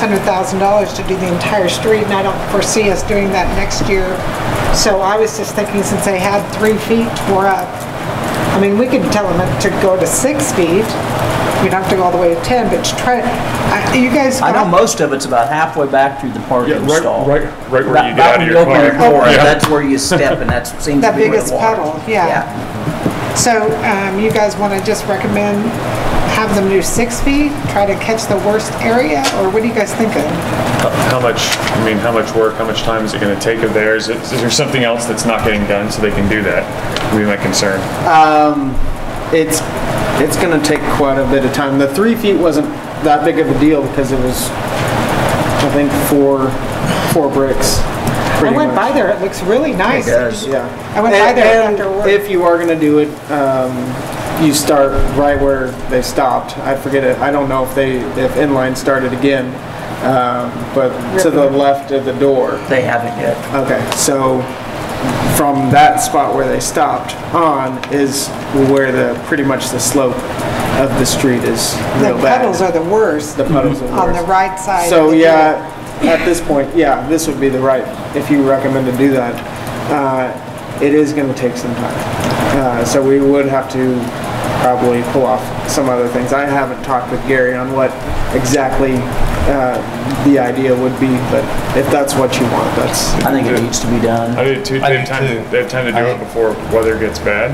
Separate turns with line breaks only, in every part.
hundred thousand dollars to do the entire street, and I don't foresee us doing that next year. So I was just thinking, since they had three feet tore up, I mean, we could tell them to go to six feet. You'd have to go all the way to ten, but to try, I- you guys.
I know
got-
most of it's about halfway back through the
Yeah,
parking
right,
stall.
right, right where
Right-
you get
right
out of
when
your
open
car.
door,
Yeah.
That's where you step, and that seems to
That
be where
biggest
the water-
puddle, yeah. So um, you guys want to just recommend have them do six feet, try to catch the worst area, or what do you guys thinking?
How much, I mean, how much work, how much time is it gonna take of theirs? Is is there something else that's not getting done so they can do that? Would be my concern.
it's it's going to take quite a bit of time. The three feet wasn't that big of a deal because it was, I think, four four bricks.
I
pretty
went
much.
by there, it looks really nice.
does.
Yeah.
I went by
And-
there
and
after work.
If you are going to do it, um, you start right where they stopped. I forget it. I don't know if they if inline started again, um, but to the left of the door.
They haven't yet.
Okay, so from that spot where they stopped on is where the, pretty much the slope of the street is
The
real bad.
puddles are the worst
The puddles are
on the
worse.
right side. of
So,
the
yeah, at this point, yeah, this would be the right, if you recommend to do that. Uh, It is gonna take some time. Uh, So we would have to probably pull off some other things. I haven't talked with Gary on what exactly uh, the idea would be, but if that's what you want, that's,
I think it needs to be
I
done.
did too,
I
they have
do
time,
too.
they have time to do
I-
it before weather gets bad.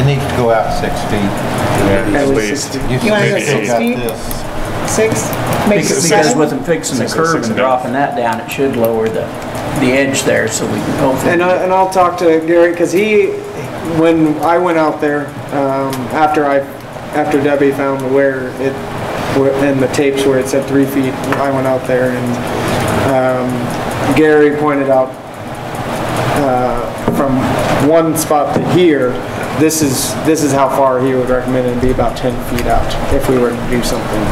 It needs to go out six feet.
Yeah,
at
At
least
least.
60.
You
wanna
go
still
six
got
feet?
this.
Six, Six? maybe
Because because
seven?
with them fixing the
Six and
curb
six
and
and a half.
dropping that down, it should lower the, the edge there, so we can hopefully.
uh,
And, I, and I'll talk to Gary because he, when I went out there um, after I, after Debbie found where it, where- in the tapes where it said three feet, I went out there and um, Gary pointed out uh, from one spot to here, this is this is how far he would recommend it to be about 10 feet out if we were to do something.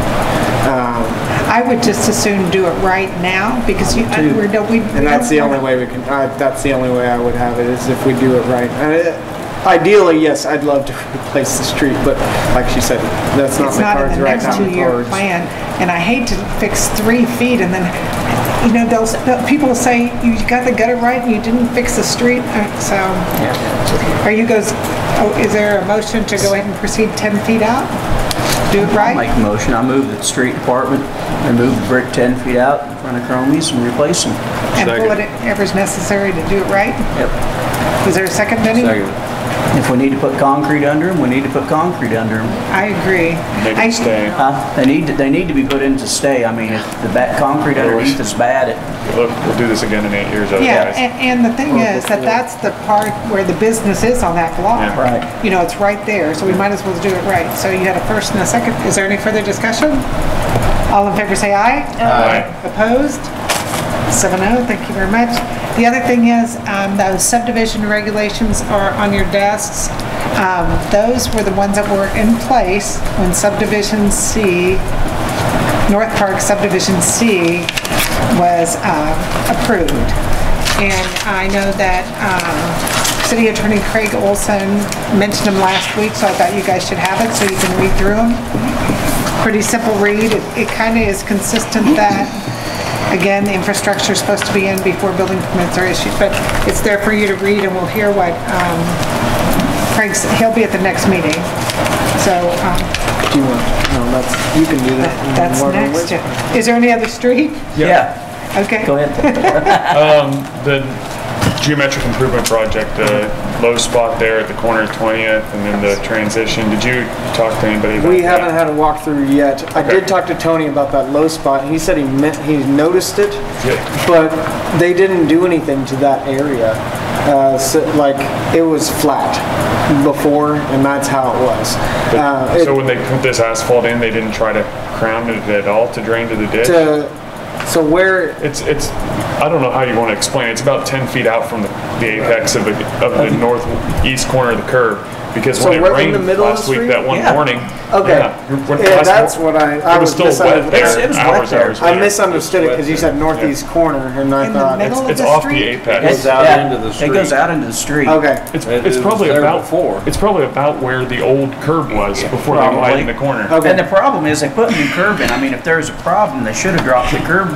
Um,
I would just as soon do it right now because you, I- we're, no- we.
and that's the only way we can. I, that's the only way I would have it is if we do it right. And it- ideally, yes, I'd love to replace the street, but like she said, that's not
It's
the
not
cards
in the
right now.
next two-year
Cards.
plan, and I hate to fix three feet and then, you know, those, the- people say, you got the gutter right and you didn't fix the street, uh, so. Are you guys, oh, is there a motion to go ahead and proceed 10 feet out? Do it
I'll make
right?
a motion, I move that the street department remove the brick 10 feet out in front of Cromie's and replace them.
And pull it ever's necessary to do it right?
Yep.
Is there a second, Benny?
If we need to put concrete under them, we need to put concrete under them.
I agree.
Make
I-
it stay.
They need, to- they need to be put in to stay. I mean, if the back, concrete underneath is bad, it-
Look, we'll do this again in eight years
Yeah, eh.
otherwise.
and, and the thing is that that's the part where the business is on that block.
Yeah.
Right.
You know, it's right there, so we might as well do it right. So you had a first and a second. Is there any further discussion? All in favor say aye.
Aye.
Opposed? Seven oh, thank you very much. The other thing is, um, those subdivision regulations are on your desks. Um, those were the ones that were in place when subdivision C North Park subdivision C was um, approved. And I know that um, City Attorney Craig Olson mentioned them last week, so I thought you guys should have it so you can read through them. Pretty simple read. It- It kind of is consistent that, again, the infrastructure is supposed to be in before building permits are issued, but it's there for you to read and we'll hear what um, Craig's, he'll be at the next meeting. So um,
Do you want? No, that's you can do that. in
that's
Morgan
next.
Wisdom.
Is there any other street?
yeah,
Okay.
go ahead.
The geometric improvement project, the low spot there at the corner of 20th and then the transition, did you talk to anybody about that?
We haven't had a walkthrough yet. I did talk to Tony about that low spot. He said he meant, he noticed it,
Yeah.
but they didn't do anything to that area. Uh, so, like, it was flat before, and that's how it was. Uh, it-
So when they put this asphalt in, they didn't try to crown it at all to drain to the ditch?
to- so where,
It's, it's, I don't know how you want to explain it. It's about 10 feet out from the the apex of the, of the northeast corner of the curb. Because
So
when it
we're in
rained
the middle of
last
the
week,
street?
that one
Yeah.
morning.
Okay.
When-
Yeah,
last-
that's what I- I
It was
was
still
misunderstanding.
wet there.
It was wet
hours,
there.
hours
I
later.
misunderstood it because you said northeast corner and I
In the
thought.
middle of
It's
the
off the
street?
apex.
It's-
out
yeah,
into the
It goes
street.
out into the street.
Okay,
It's,
It
it's
was
probably
there
about
before.
It's probably about where the old curb was before they
Probably.
widened the corner.
okay.
And the problem is, they put new curb in. I mean, if there's a problem, they should have dropped the curb